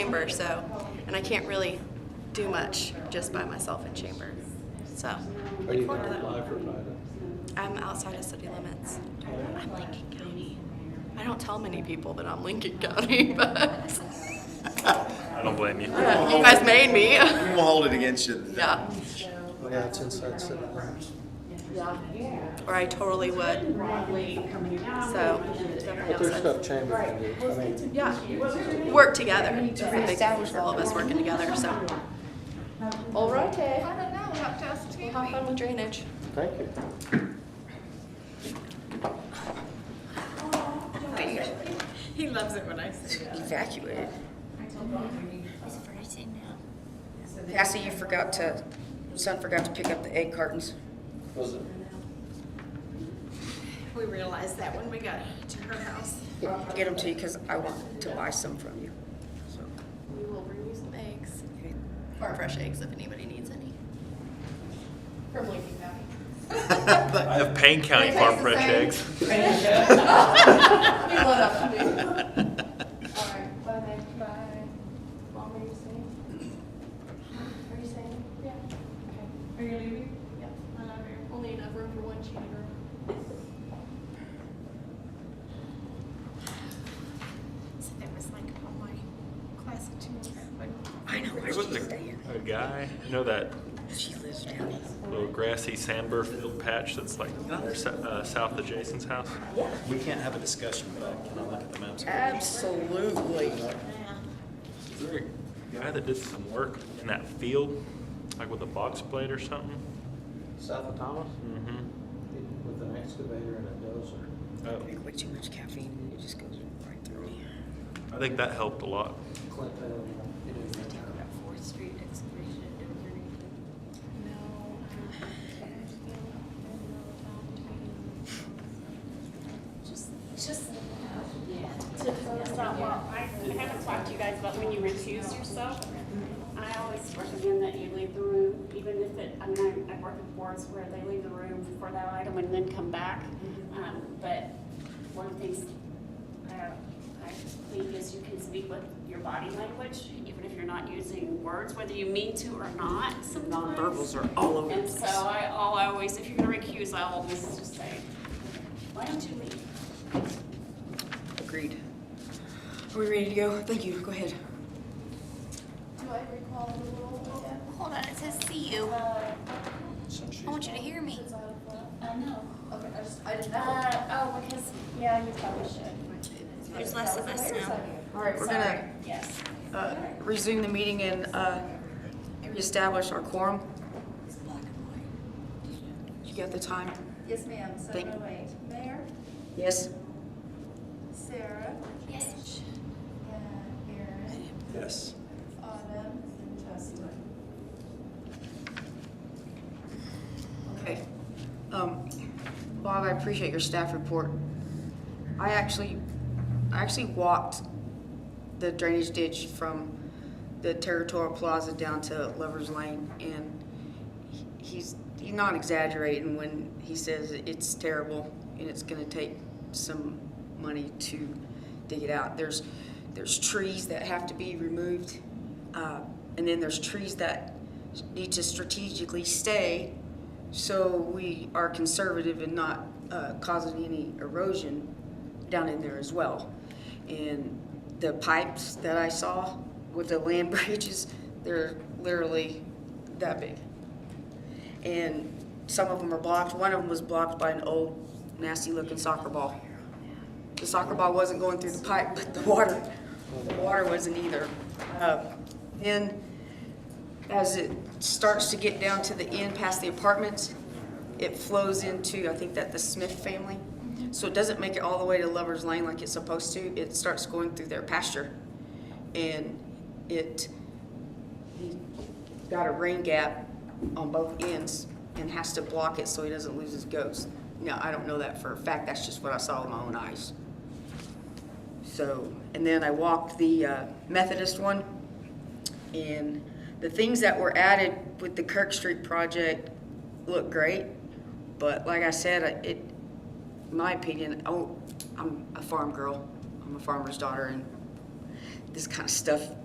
chamber, so, and I can't really do much just by myself in chamber. So, Are you look forward going to to apply that. for private? I'm outside of city limits. I'm Lincoln County. I don't tell many people that I'm Lincoln County, but I don't blame you. you guys made me. We won't hold it against you. Yeah. Oh, yeah, it's inside city limits. Or I totally would. So, definitely But there's outside. stuff chamber can do. I mean, Yeah. Work together. I think all of us working together, so. All right, I don't know, we'll have to ask Tammy. Have fun with drainage. thank you. He loves it when I say that. evacuated. Cassie, you forgot to, son forgot to pick up the egg cartons. Was it? We realized that when we got to her house. Get them to you because I want to buy some from you. So, We will bring you some eggs. Or fresh eggs if anybody needs any. From Lincoln County. I have Payne County farm fresh eggs. We love that food. Alright, by next, by, what were you saying? Are you saying? Yeah. Okay. Are you leaving? Yeah. I love you. Only enough room for one chamber. So that was like all my class of two. I know where There was she's staying. a, a guy, you know that She lives down here. little grassy sandbur field patch that's like s- uh, south of Jason's house? We can't have a discussion, but can I look at the maps? Absolutely. Is there a guy that did some work in that field, like with a box blade or something? South of Thomas, Mm-hmm. with an excavator and a dozer. Oh, Drink way too much caffeine and it just goes right through me. I think that helped a lot. Clint, uh, you know, About Fourth Street excavation at Denver. uh, I haven't talked to you guys about when you recuse yourself. I always recommend that you leave the room, even if it, I mean, I- I've worked with boards where they leave the room for that item and then come back. Um, but one of the things, uh, I think is you can speak with your body language, even if you're not using words, whether you mean to or not sometimes. Nonverbals are all over the And so place. I, I'll always, if you're gonna recuse, I'll always just say, why don't you leave? Agreed. Are we ready to go? Thank you. Go ahead. Do I recall the rule? Hold on, it says see you. I want you to hear me. Is that a flaw? I know. Okay, I just, I didn't know. Uh, oh, because, yeah, you probably should. There's less of us now. All right, we're gonna Yes. uh, resume the meeting and uh, reestablish our quorum. You got the time? Yes, ma'am, Thank- seven oh eight. Mayor, Yes. Sarah, Yes. and Aaron, Yes. Autumn, and Justin. Okay. Um, Bob, I appreciate your staff report. I actually, I actually walked the drainage ditch from the Territorial Plaza down to Lover's Lane, and he- he's, he's not exaggerating when he says it's terrible and it's gonna take some money to dig it out. There's, there's trees that have to be removed, uh, and then there's trees that need to strategically stay so we are conservative and not uh, causing any erosion down in there as well. And the pipes that I saw with the land bridges, they're literally that big. And some of them are blocked. One of them was blocked by an old nasty looking soccer ball. The soccer ball wasn't going through the pipe, but the water, the water wasn't either. Uh, and as it starts to get down to the end past the apartments, it flows into, I think that the Smith family. So it doesn't make it all the way to Lover's Lane like it's supposed to. It starts going through their pasture. And it he got a rain gap on both ends and has to block it so he doesn't lose his goats. Now, I don't know that for a fact. That's just what I saw with my own eyes. So, and then I walked the uh, Methodist one. And the things that were added with the Kirk Street project look great. But like I said, I- it, in my opinion, oh, I'm a farm girl. I'm a farmer's daughter, and this kind of stuff